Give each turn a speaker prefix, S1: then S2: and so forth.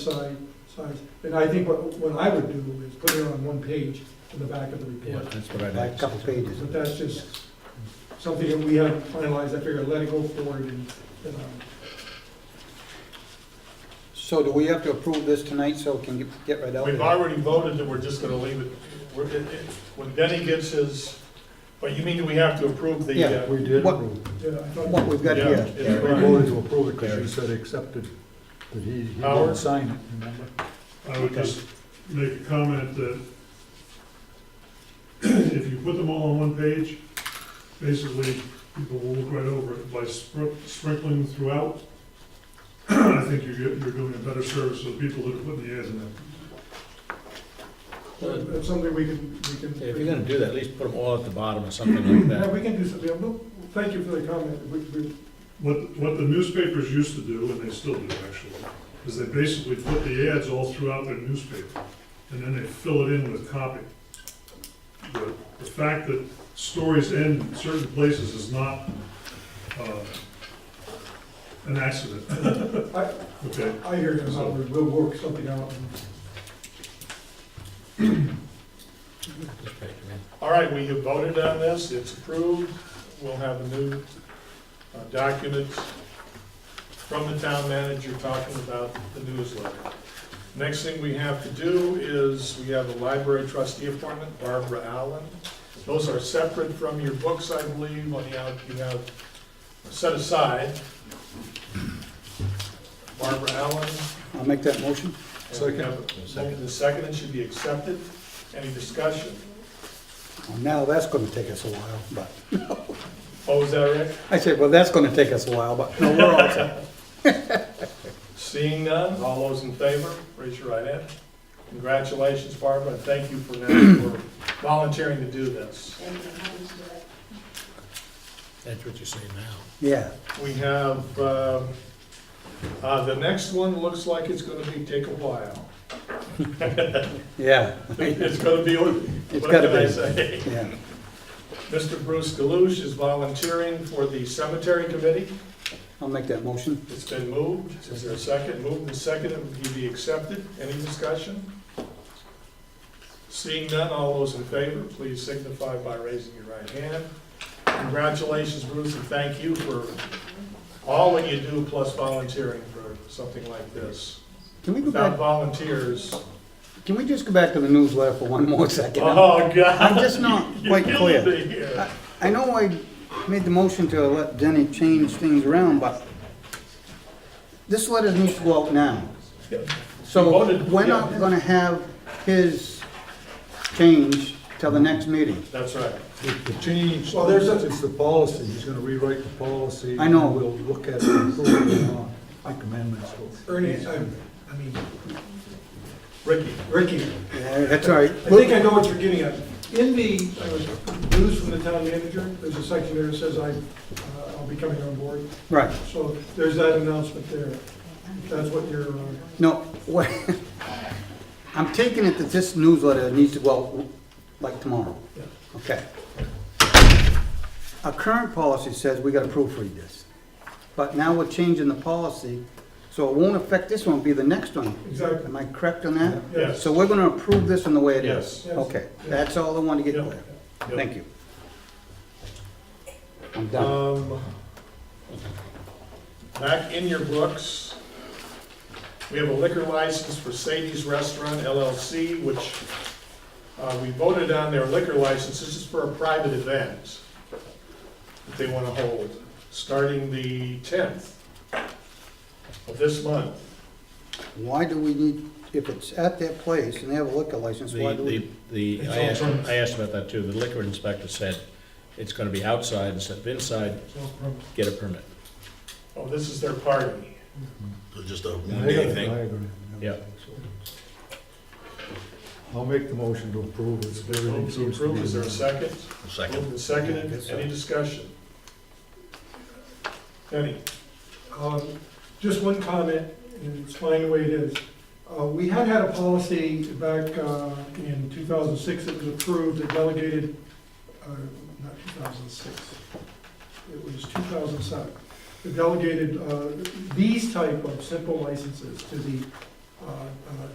S1: side, size, and I think what, what I would do is put it on one page in the back of the
S2: Yeah,
S1: report.
S2: that's what I'd
S3: Like
S2: like.
S3: a couple pages.
S1: But that's just something that we haven't finalized, I figured let it go forward and, and, um,
S3: So do we have to approve this tonight so it can get- get right out?
S4: We've
S3: there?
S4: already voted that we're just gonna leave it, we're, it, it, when Denny gets his, but you mean that we have to approve the,
S3: Yeah.
S4: uh,
S5: We did
S3: What-
S5: approve.
S1: yeah, I thought.
S3: What we've got
S4: Yeah,
S3: here.
S4: it's
S5: We
S4: right.
S5: voted to approve it because you said accepted, that he, he
S2: Oh.
S4: Howard?
S5: didn't sign it, remember?
S6: I would just make a comment that if you put them all on one page, basically, people will look right over it. By spr- sprinkling throughout, I think you're, get- you're doing a better service to the people that are putting the ads in there.
S1: That's something we can, we can.
S2: If you're gonna do that, at least put them all at the bottom or something like
S1: Yeah,
S2: that.
S1: we can do something, yeah, well, thank you for the comment, we, we,
S6: What, what the newspapers used to do, and they still do actually, is they basically put the ads all throughout their newspaper, and then they fill it in with copy. The, the fact that stories end in certain places is not, uh, an accident,
S1: I,
S6: okay?
S1: I hear you, Howard, we'll work something out.
S2: This page, yeah.
S4: all right, we have voted on this, it's approved, we'll have the new uh, documents from the town manager talking about the newsletter. Next thing we have to do is, we have a library trustee appointment, Barbara Allen. Those are separate from your books, I believe, on the out, you have set aside. Barbara Allen,
S3: I'll make that motion.
S5: Second.
S4: Second, the second, it should be accepted. Any discussion?
S3: Now, that's gonna take us a while, but,
S4: Oh, is that right?
S3: I said, well, that's gonna take us a while, but, no, we're all set.
S4: Seeing none, all those in favor, raise your right hand. Congratulations, Barbara, and thank you for now for volunteering to do this.
S2: That's what you say now.
S3: Yeah,
S4: We have, um, uh, the next one looks like it's gonna be, take a while.
S3: yeah,
S4: It's gonna be,
S3: It's
S4: what
S3: gotta
S4: can I
S3: be.
S4: say?
S3: yeah.
S4: Mr. Bruce Galush is volunteering for the cemetery committee.
S3: I'll make that motion.
S4: It's been moved. Is there a second? Moved and seconded. Would he be accepted? Any discussion? Seeing none, all those in favor, please signify by raising your right hand. Congratulations, Bruce, and thank you for all that you do, plus volunteering for something like this.
S3: Can we go
S4: Without
S3: back,
S4: volunteers,
S3: can we just go back to the newsletter for one more second?
S4: oh,
S3: I'm
S4: God.
S3: just not
S4: You're
S3: quite
S4: killing
S3: clear.
S4: me here.
S3: I I know I made the motion to let Denny change things around, but this letter needs to go out now.
S4: You
S3: So
S4: voted,
S3: we're not
S4: yeah.
S3: gonna have his change till the next meeting.
S4: That's right.
S5: The the change,
S1: Well, there's a-
S5: it's the policy, he's gonna rewrite the policy.
S3: I know.
S5: and We'll look at it and approve it or not, make amendments.
S1: Ernie, I, I mean,
S4: Ricky,
S1: Ricky,
S3: Yeah, That's all right.
S1: I think I know what you're getting at. In the uh, news from the town manager, there's a section there that says I, uh, I'll be coming on board.
S3: Right,
S1: So there's that announcement there. If That's what you're, uh,
S3: no, what, I'm taking it that this newsletter needs to go out like tomorrow.
S1: Yeah.
S3: Okay. Our current policy says we gotta proofread this, but now we're changing the policy, so it won't affect this one, it'll be the next one.
S1: exactly.
S3: Am I correct on that?
S4: yes.
S3: So we're gonna approve this in the way it is?
S4: Yes.
S1: Yes.
S3: Okay, that's all I want to get
S4: Yeah.
S3: clear.
S4: Yeah.
S3: Thank you. I'm done.
S4: Um, back in your books, we have a liquor license for Sadie's Restaurant LLC, which, uh, we voted on their liquor license, this is for a private event that they wanna hold, starting the tenth of this month.
S3: Why do we need, if it's at their place and they have a liquor license, why do
S2: The,
S3: we?
S2: the,
S4: It's
S2: the,
S4: all
S2: I asked,
S4: premise.
S2: I asked about that too. The liquor inspector said it's gonna be outside instead of inside, get a permit.
S4: Oh, this is their party.
S7: Just a
S5: Yeah,
S7: one
S5: I got
S7: day
S5: a
S7: thing.
S5: diagram.
S2: Yeah.
S5: I'll make the motion to approve it. Everything
S4: Move to
S5: seems to
S4: approve,
S5: be-
S4: is there a second?
S7: Second.
S4: Moved and seconded, any discussion? Any?
S1: Um, Just one comment, and it's fine the way it is. Uh, We had had a policy back uh, in 2006 that was approved, that delegated, uh, not 2006, it was 2007. It delegated uh, these type of simple licenses to the